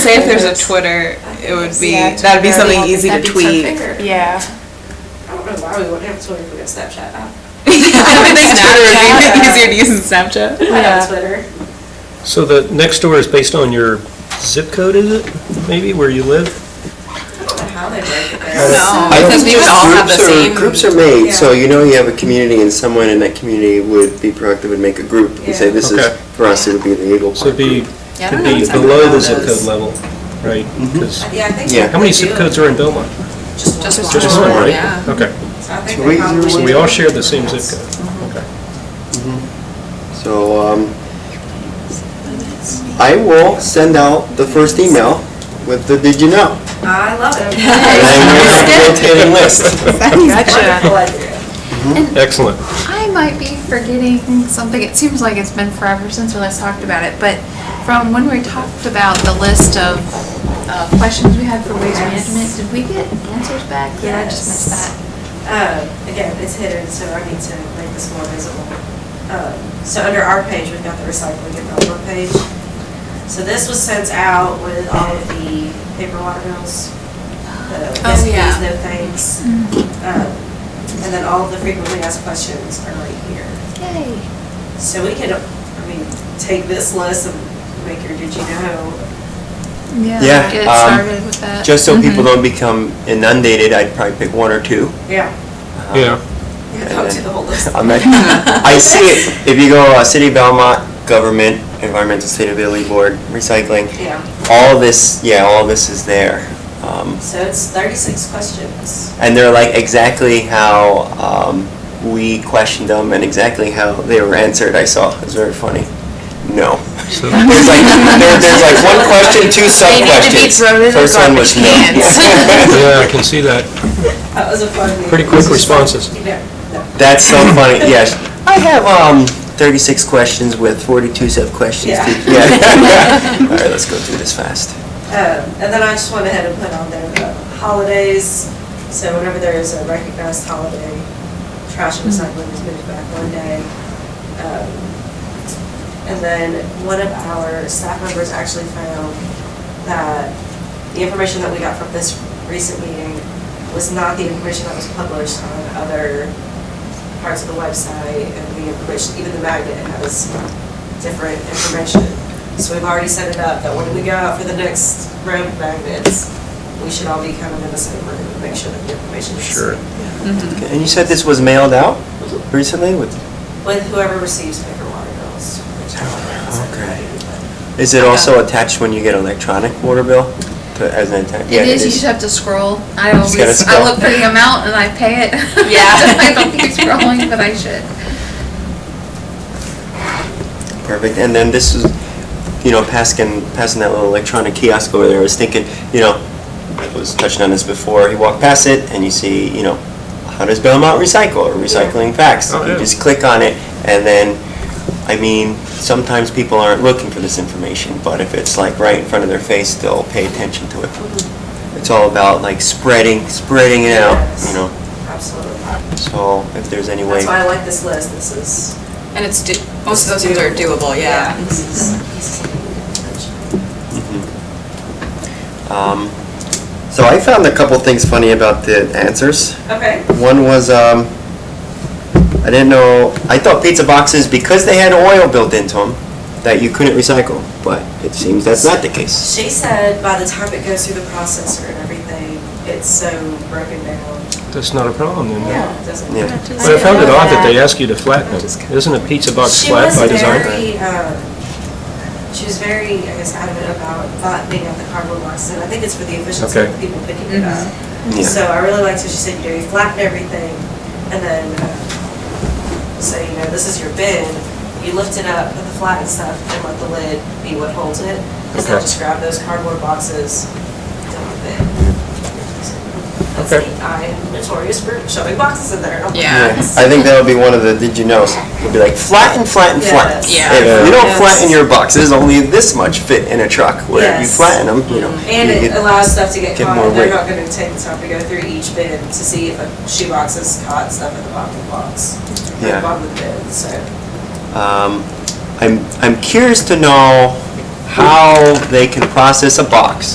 Say if there's a Twitter, it would be, Yeah, that'd be Twitter. something easy to That'd be tweet. something. Yeah. I don't know why we wouldn't have Twitter if we got Snapchat. I I would think Twitter would be Snapchat. easier to use than Snapchat. I have Twitter. So the next door is based on your zip code, is it? Maybe where you live? I don't know how they break it there. No, I don't because we think would all have the groups are- same. Groups are made, so Yeah. you know you have a community and someone in that community would be proactive and make a group and say, Yeah. this is, Okay. for us, it would be the Eagle So it'd Park be, group. Yeah, I it'd don't know be exactly below how the it zip is. Mm-hmm. code level, right? 'Cause- Yeah, I think. Yeah. they How many do zip it. codes are in Belmont? Just Just just one. Just one, Sure, right? yeah. Mm-hmm. Okay. So I think So they we- probably So we do. all share the same zip code. Okay. So, um, I will send out the first email with the did you know? I love And it. then we'll rotate and list. Gotcha. Wonderful idea. Excellent. I might be forgetting something. It seems like it's been forever since we last talked about it, but from when we talked about the list of uh, questions we had for waste Yes. management, did we get answers back? Did I just missed Yes. that. Um, Again, it's hidden, so I need to make this more visible. Um, So under our page, we've got the recycling and outdoor page. So this was sent out with all of the paper water bills, the Oh, yes, please, yeah. Mm-hmm. no thanks. Um, And then all of the frequently asked questions are right here. Yay. So we can, I mean, take this list and make your did you know? Yeah, Get um, started with that. Mm-hmm. Just so people don't become inundated, I'd probably pick one or two. Yeah. Yeah. You can talk to the whole list. I'm not- I see it, if you go, uh, City of Belmont, Government, Environmental Sustainability Board, Recycling, Yeah. all this, yeah, all this is there. Um, So it's 36 questions. And they're like exactly how um, we questioned them and exactly how they were answered, I saw. It was very funny. No. So- There's like, there- there's like one question, They need to two be sub-questions. thrown in the First one was garbage no. cans. Yeah, I can see that. That was a fun meeting. Pretty quick responses. Yeah. no. That's so funny, yes. I have um, 36 questions with 42 sub-questions. Yeah. Yeah. All right, let's go through this fast. Um, And then I just went ahead and put on there the holidays, so whenever there is a recognized holiday, trash and recycling is moved back one day. Um, And then one of our staff members actually found that the information that we got from this recent meeting was not the information that was published on other parts of the website and the information, even the magnet has different information. So we've already set it up that when we go out for the next round of magnets, we should all be kind of in the same room and make sure that the information is. Sure. Mm-hmm. Okay, And you said this was mailed out recently? with- With whoever receives paper water bills. which I don't know, so Okay. maybe, but- Is it also attached when you get electronic water bill to- as an attachment? It is, you just have to scroll. I Just gotta always, I scroll. look for the amount and I pay it. Yeah. I don't keep scrolling, but I should. Perfect, and then this is, you know, passing, passing that little electronic kiosk over there, I was thinking, you know, I was touching on this before, you walk past it and you see, you know, how does Belmont recycle, or recycling facts? Oh, yeah. You just click on it, and then, I mean, sometimes people aren't looking for this information, but if it's like right in front of their face, they'll pay attention to it. It's all about like spreading, spreading it out, Yes, you know, Absolutely. so if there's any way. That's why I like this list, this is. And it's, do- most of those things are doable, yeah. This is, this is something we need to mention. Um, So I found a couple things funny about the answers. Okay. One was, um, I didn't know, I thought pizza boxes, because they had oil built into them, that you couldn't recycle, but it seems that's not the case. She said by the time it goes through the processor and everything, it's so broken down. That's not a problem then. no. Yeah, it doesn't. Yeah. But I found it odd that they ask you to flatten it. Isn't a pizza box She flat was by design? very, um, She was very, I guess, adamant about not being on the cardboard box, and I think it's for the efficiency Okay. of people picking it up. Yeah. So I really liked what she said, you know, you flatten everything, and then uh, say, you know, this is your bin, you lift it up, put the flattened stuff, and let the lid be what holds it. Instead of Okay. just grab those cardboard boxes, dump it. That's Okay. neat. I am notorious for shoving boxes in there. Oh Yeah. I think that'll be one of the did you knows. It'll be like flatten, flatten, flatten. Yes. Yeah. If you don't Yes. flatten your boxes, only this much fit in a truck, where if you Yes. Mm-hmm. flatten them, you know. Um, And you it get- allows stuff to get get caught, more and they're weight. not gonna take the time to go through each bin to see if a shoebox has caught stuff at the bottom of the box. or Yeah. the bottom of the bin, so. Um, I'm, I'm curious to know how they can process a box.